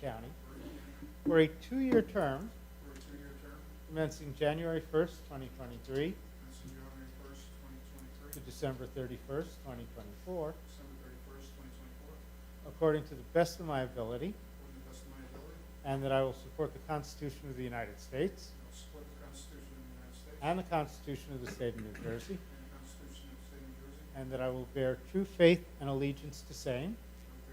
County for a two-year term for a two-year term, commencing January 1st, 2023 commencing January first, twenty to twenty-three, December 31st, 2024, December thirty-first, twenty twenty-four, according to the best of my ability, according to the best of my ability, and and that I will support the Constitution of the United States will support the Constitution of the United States and the Constitution of the State of New Jersey, and the Constitution of the State of New Jersey, and and that I will bear true faith and allegiance to same will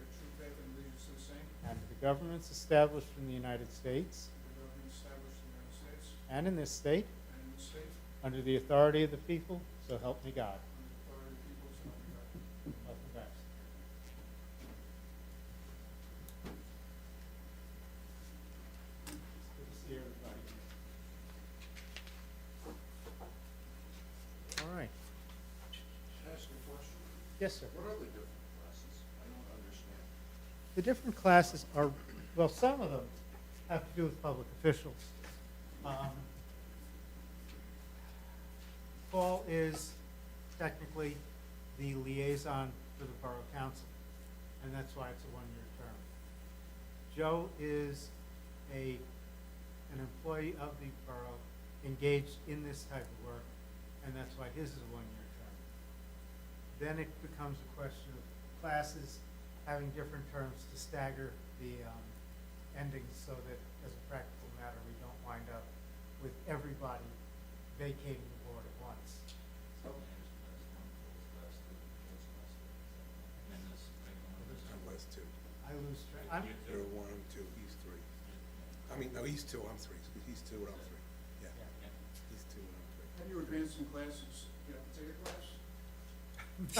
bear true faith and allegiance to the same, and to the governments established in the United States and the government established in the United States and in this state and in the state, under the authority of the people, so help me God. under the authority of the people, so help me Welcome God. back. Good to see everybody. All right. Can I ask a question? Yes, sir. What are the different classes? I don't understand. The different classes are, well, some of them have to do with public officials. Um, Paul is technically the liaison for the Borough Council, and that's why it's a one-year term. Joe is a, an employee of the borough, engaged in this type of work, and that's why his is a one-year term then it becomes a question of classes having different terms to stagger the um, endings so that, as a practical matter, we don't wind up with everybody vacating the board at once. I lose track, I'm, You're one, I'm two, he's three. I mean, no, he's two, I'm three, excuse- he's two and I'm three, yeah, yeah. he's two and I'm three. Have you advanced in classes? You have to take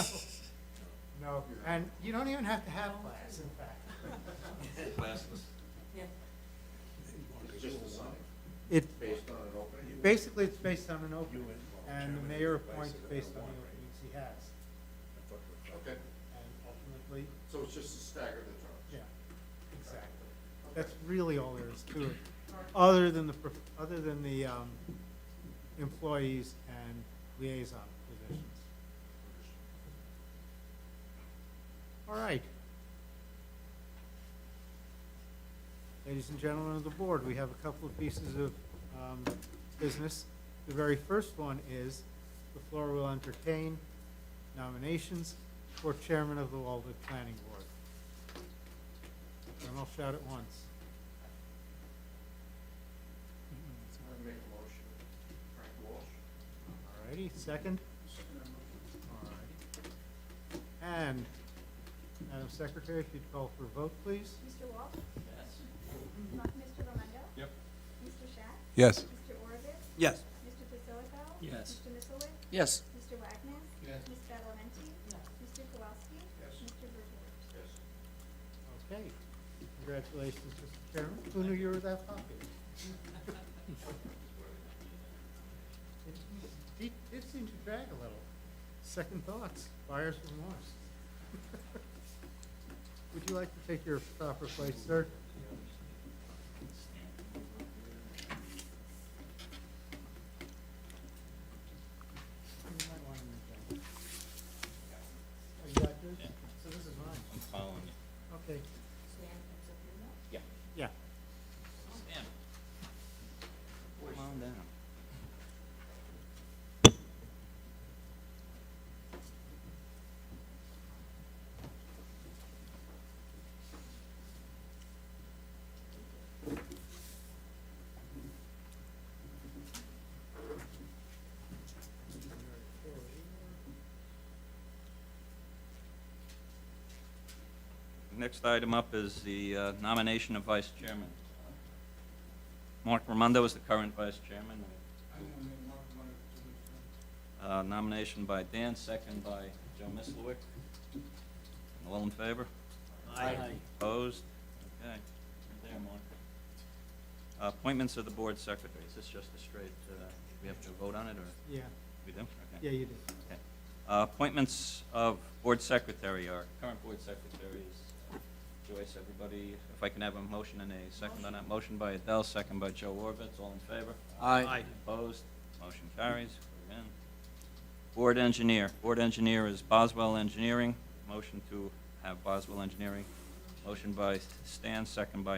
a class? no, and you don't even have to have class, in fact. Classless. Mark It's is just a sign, all one. It, based on an opening. basically, it's based on an You opening, and Mark and the Chapman mayor are vice appoints and based I'm on the one, right? openings he has, I thought you were five. Okay, and ultimately, so it's just to stagger the terms. yeah, exactly. Okay. That's really all there is to it, other than the, prof- other than the um, employees and liaison positions. All right. Ladies and gentlemen of the board, we have a couple of pieces of um, business. The very first one is the floor will entertain nominations for chairman of the Walden Planning Board. And I'll shout at once. I make a motion, Frank Walsh. All righty, second? Second, I'm looking. All righty. And, Madam Secretary, if you'd call for a vote, please? Mr. Walsh? Yes. Mr. Romando? Yep. Mr. Schatz? Yes. Mr. Orovitz? Yes. Mr. Basilico? Yes. Mr. Mitchellwitz? Yes, Mr. Wagner? Yes. Ms. Bedlenti? Yes. Mr. Kowalski? Yes. Mr. Berkowitz? Yes. Okay. Congratulations, Mr. Chairman. Who knew you were that popular? It- It did seem to drag a little. Second thoughts, buyer's remorse. Would you like to take your proper place, sir? You might want to move that. Oh, you got yours? So this is mine. I'm following you. Okay. Yeah. Stand. Come on down. Next item up is the uh, nomination of vice chairman. Mark Ramondo is the current vice chairman. I want to make Mark one of the two. Uh, Nomination by Dan, second by Joe Mislowick. All in favor? Aye. Opposed? Okay. You're There, Mark. Uh, Appointments of the board secretary. Is this just a straight, uh, we have to vote on it, or Yeah, we do? Okay. yeah, you do. Okay. Uh, Appointments of board secretary, our current board secretary is Joyce, everybody, if I can have a motion and a second on that. Motion by Adele, second by Joe Orbitz, all in favor? Aye. Opposed? Motion carries. We're in. Board engineer, board engineer is Boswell Engineering. Motion to have Boswell Engineering. Motion by Stan, second by